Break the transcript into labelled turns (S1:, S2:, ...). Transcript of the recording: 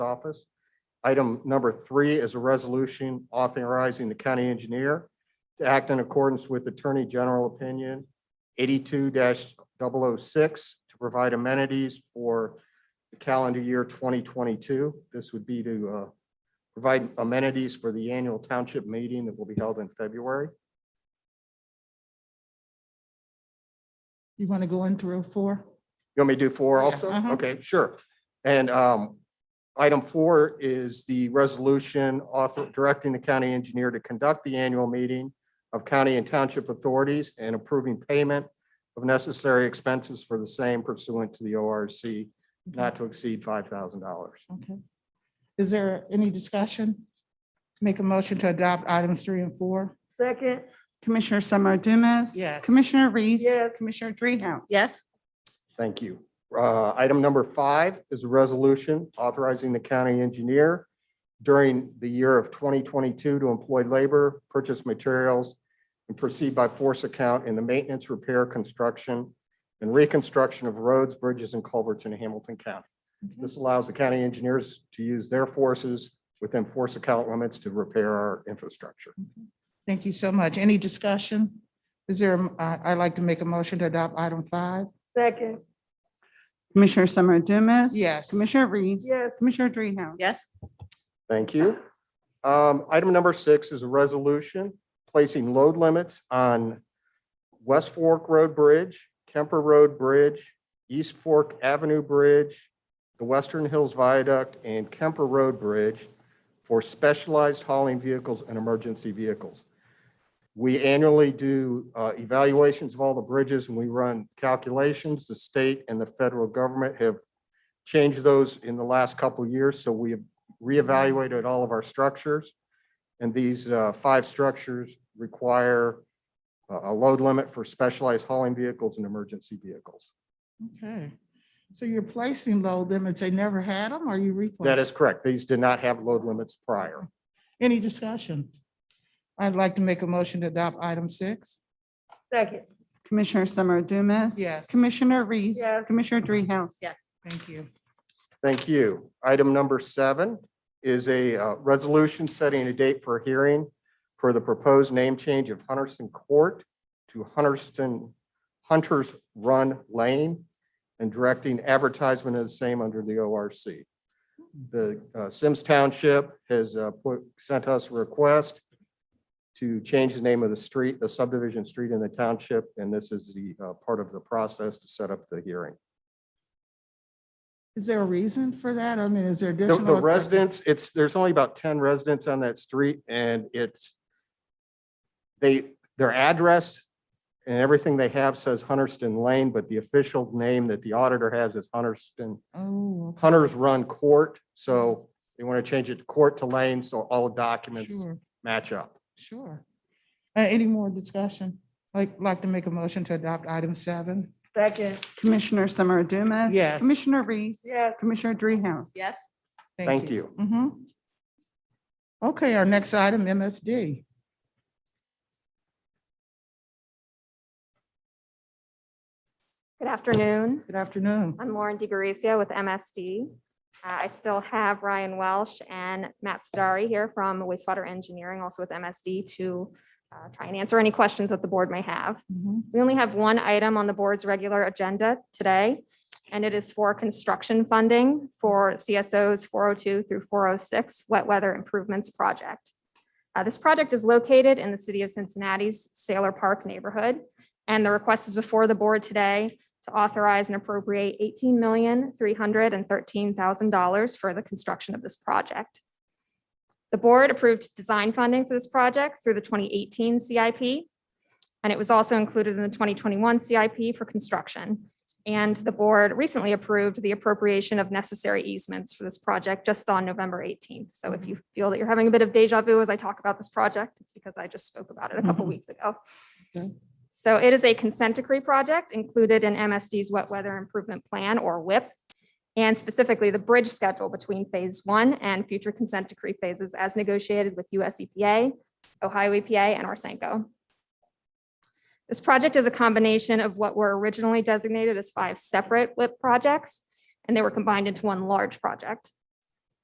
S1: office. Item number three is a resolution authorizing the county engineer to act in accordance with Attorney General Opinion eighty-two 6 to provide amenities for the calendar year twenty twenty-two. This would be to uh, provide amenities for the annual township meeting that will be held in February.
S2: You want to go in through four?
S1: You want me to do four
S2: Yeah,
S1: also?
S2: uh-huh.
S1: Okay, sure. And um, item four is the resolution author directing the county engineer to conduct the annual meeting of county and township authorities and approving payment of necessary expenses for the same pursuant to the ORC not to exceed five thousand dollars.
S2: Okay. Is there any discussion? Make a motion to adopt items three and four?
S3: Second,
S4: Commissioner Summer Dumas.
S2: Yes.
S4: Commissioner Reese.
S3: Yes.
S4: Commissioner Dreehouse.
S5: Yes,
S1: Thank you. Uh, Item number five is a resolution authorizing the county engineer during the year of 2022 to employ labor, purchase materials, and proceed by force account in the maintenance, repair, construction, and reconstruction of roads, bridges, and culverts in Hamilton County. This allows the county engineers to use their forces within force account limits to repair our infrastructure.
S2: Thank you so much. Any discussion? Is there, a- I, would like to make a motion to adopt item five?
S3: second,
S4: Commissioner Summer Dumas.
S2: Yes.
S4: Commissioner Reese.
S3: yes,
S4: Commissioner Dreehouse.
S5: yes,
S1: Thank you. Um, Item number six is a resolution placing load limits on West Fork Road Bridge, Kemper Road Bridge, East Fork Avenue Bridge, the Western Hills Viaduct, and Kemper Road Bridge for specialized hauling vehicles and emergency vehicles. We annually do uh, evaluations of all the bridges and we run calculations. The state and the federal government have changed those in the last couple of years, so we have reevaluated all of our structures. And these uh, five structures require a a load limit for specialized hauling vehicles and emergency vehicles.
S2: Okay. So you're placing low limits. They never had them? Are you replacing?
S1: That is correct. These did not have load limits prior.
S2: Any discussion? I'd like to make a motion to adopt item six.
S3: second,
S4: Commissioner Summer Dumas.
S2: Yes.
S4: Commissioner Reese.
S3: Yes.
S4: Commissioner Dreehouse.
S5: Yes.
S2: Thank you.
S1: Thank you. Item number seven is a uh, resolution setting a date for a hearing for the proposed name change of Hunterston Court to Hunterston Hunters Run Lane and directing advertisement of the same under the ORC. The uh, Sims Township has uh, put- sent us a request to change the name of the street, the subdivision street in the township, and this is the uh, part of the process to set up the hearing.
S2: Is there a reason for that? I mean, is there
S1: The-
S2: additional?
S1: The residents, it's, there's only about ten residents on that street and it's they, their address and everything they have says Hunterston Lane, but the official name that the auditor has is Hunterston,
S2: Oh,
S1: Hunters Run Court. So they want to change it to court to lane, so all documents
S2: sure,
S1: match up.
S2: sure. Uh, any more discussion? Like, like to make a motion to adopt item seven?
S3: second,
S4: Commissioner Summer Dumas.
S2: Yes.
S4: Commissioner Reese.
S3: yes,
S4: Commissioner Dreehouse.
S5: yes,
S1: Thank you.
S2: Mhm. Okay, our next item, MSD.
S6: Good afternoon.
S2: Good afternoon.
S6: I'm Lauren DiGarcia with MSD. Uh, I still have Ryan Welsh and Matt Spadari here from wastewater engineering, also with MSD, to uh, try and answer any questions that the board may have.
S2: Mhm.
S6: We only have one item on the board's regular agenda today, and it is for construction funding for CSOs 402 through 406 Wet Weather Improvements Project. Uh, This project is located in the city of Cincinnati's Sailor Park neighborhood, and the request is before the board today to authorize and appropriate $18,313,000 for the construction of this project. The board approved design funding for this project through the 2018 CIP, and it was also included in the 2021 CIP for construction. And the board recently approved the appropriation of necessary easements for this project just on November 18th. So if you feel that you're having a bit of deja vu as I talk about this project, it's because I just spoke about it a couple
S2: Mhm.
S6: weeks ago.
S2: Okay.
S6: So it is a consent decree project included in MSD's Wet Weather Improvement Plan, or WIP, and specifically the bridge schedule between Phase 1 and future consent decree phases as negotiated with US EPA, Ohio EPA, and Orsenco. This project is a combination of what were originally designated as five separate WIP projects, and they were combined into one large project.